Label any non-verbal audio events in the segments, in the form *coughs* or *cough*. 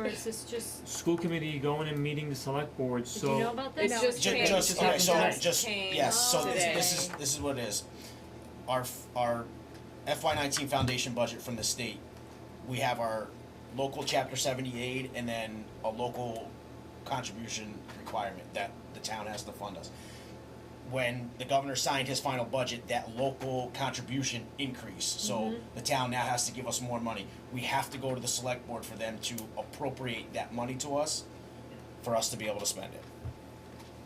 is this just, School committee going and meeting the select board, did you know so about this? It's No, just it's changed. changed. just- It okay, happened so just changed yeah. yeah. yes, so this, today. this is this is what it is. Our f- our FY nineteen foundation budget from the state. We have our local chapter seventy eight and then a local contribution requirement that the town has to fund us. When the governor signed his final budget, that local contribution increased. So Mm-hmm. the town now has to give us more money. We have to go to the select board for them to appropriate that money to us for us to be able to spend it.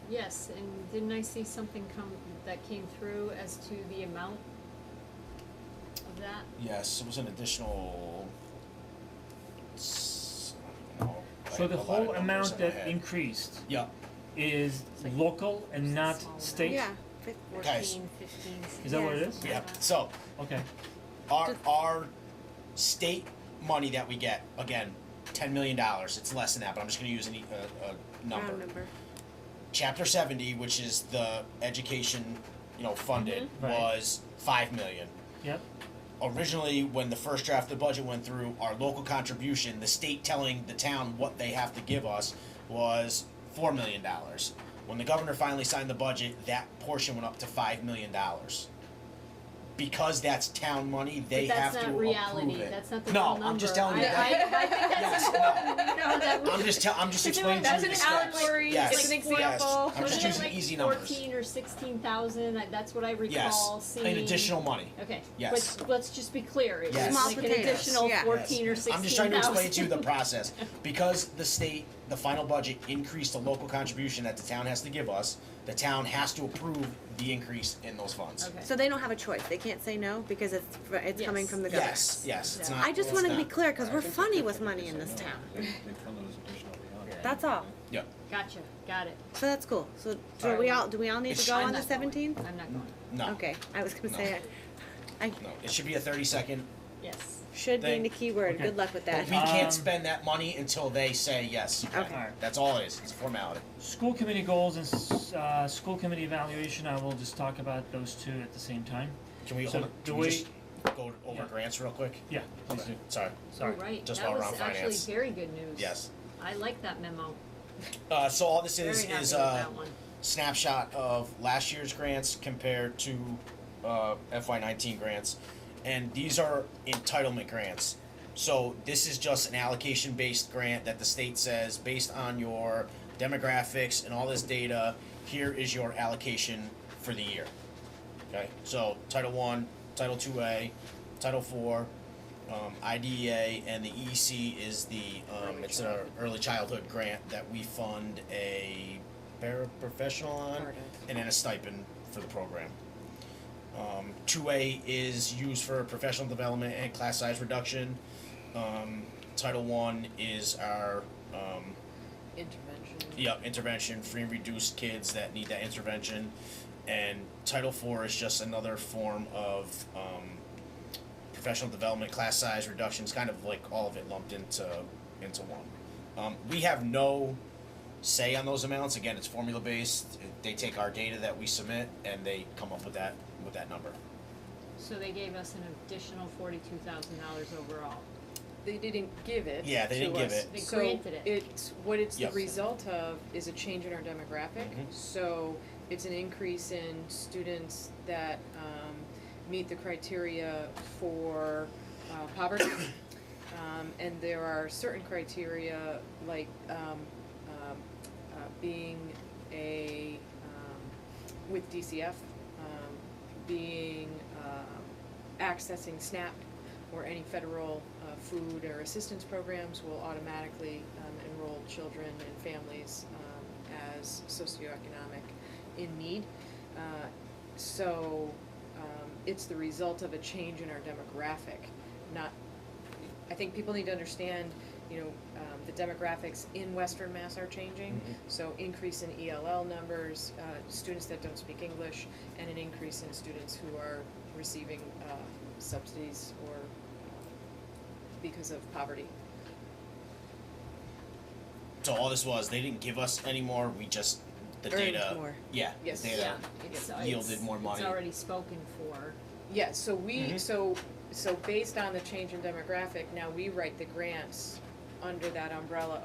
Yes, and didn't I see something come, that came through as to the amount of that? Yes, it was an additional. s- I don't even know. I so have the a lot whole of numbers amount in my that head. increased Yeah, is like- local and not Small amount. state? Yeah, but Guys. Fourteen, fifteen, Is that what it Yeah. is? yeah, so Okay, our Just- our state money that we get, again, ten million dollars, it's less than that, but I'm just gonna use a, a, a round number. number. Chapter seventy, which is the education, you know, funded, Mhm. Right. was five million. yep, originally when the first draft of the budget went through our local contribution the state telling the town what they have to give us was four million dollars when the governor finally signed the budget that portion went up to five million dollars because that's town money they But that's have to not approve reality, it that's not the real no number. i'm just telling you I- that I, I think that's *laughs* Yes, important, you know, that *laughs* we- i'm just tell, i'm just But there were- explaining to you that's the an steps. allegory, yes, it's an yes. example. i'm Wasn't just it using like easy numbers Fourteen or sixteen thousand, I- that's what I yes recall seeing. and additional money Okay, Yes. but let's just be clear, it's Yes. like Small an potatoes, additional yeah. fourteen or Yes. sixteen thousand. I'm just trying to explain to you the process. Because the state, the final budget increased the local contribution that the town has to give us, the town has to approve the increase in those funds. Okay. So they don't have a choice. They can't say no because it's fr- it's Yes. coming from the government. Yes, yes, it's Yeah. not. I just it's want to be not- clear because we're funny with money They in said this no. town. They, they come to us additional beyond. that. That's all. Yeah, Gotcha, got it. So that's cool. So do Alright. we all do we all need It's- to go I'm on the not going. 17th? I'm not going, no. Okay, I was gonna No. say I, I No, it should be a thirty second, yes. should Thank- be in the keyword. Okay. Good luck with but that. we can't Um, spend that money until they say yes, you can. Okay. Alright. That's all it is, it's a formality. school committee goals and, s- uh, school committee evaluation, I will just talk about those two at the same time. Can we So hold, it- do can we we- just go over Yeah. grants real quick? Yeah, please do, Sorry, sorry. You're right, Just that while we're was on actually finance. very good news. yes. I like that memo, Uh, so all this very is, happy with is, uh, that one. snapshot of last year's grants compared to uh, FY19 grants, and these are entitlement grants. So this is just an allocation based grant that the state says based on your demographics and all this data, here is your allocation for the year. Okay, so Title One, Title Two A, Title Four, um, IDEA, and the EC is the um, it's an early childhood grant that we fund a paraprofessional on, and then a stipend for the program. Um, two A is used for professional development and class size reduction. Um, Title One is our um, Intervention. Yep, intervention, free and reduced kids that need that intervention. And Title IV is just another form of um, professional development, class size reductions, kind of like all of it lumped into into one. Um, we have no say on those amounts. Again, it's formula based. They take our data that we submit and they come up with that with that number. So they gave us an additional forty-two thousand dollars overall. They didn't give it. Yeah, they to didn't give us. it. They So granted it. it's- what it's the Yes. result of is a change in our demographic. Mhm. So it's an increase in students that um, meet the criteria for uh, *coughs* poverty. Um, and there are certain criteria like um, um, uh, being a um, with DCF, um, being um, accessing SNAP or any federal uh, food or assistance programs will automatically um, enroll children and families um, as socioeconomic in need. Uh, so um, it's the result of a change in our demographic, not I think people need to understand, you know, um, the demographics in Western Mass are changing. Mhm. So increase in ELL numbers, uh, students that don't speak English, and an increase in students who are receiving uh, subsidies or uh, because of poverty. So all this was they didn't give us any more. We just the Earned data. more. Yeah, Yes. the data. Yeah, it's, uh, it's- Yeah. uh, Yielded more money. It's already spoken for. Yeah, so we, Mhm. so, so based on the change in demographic, now we write the grants under that umbrella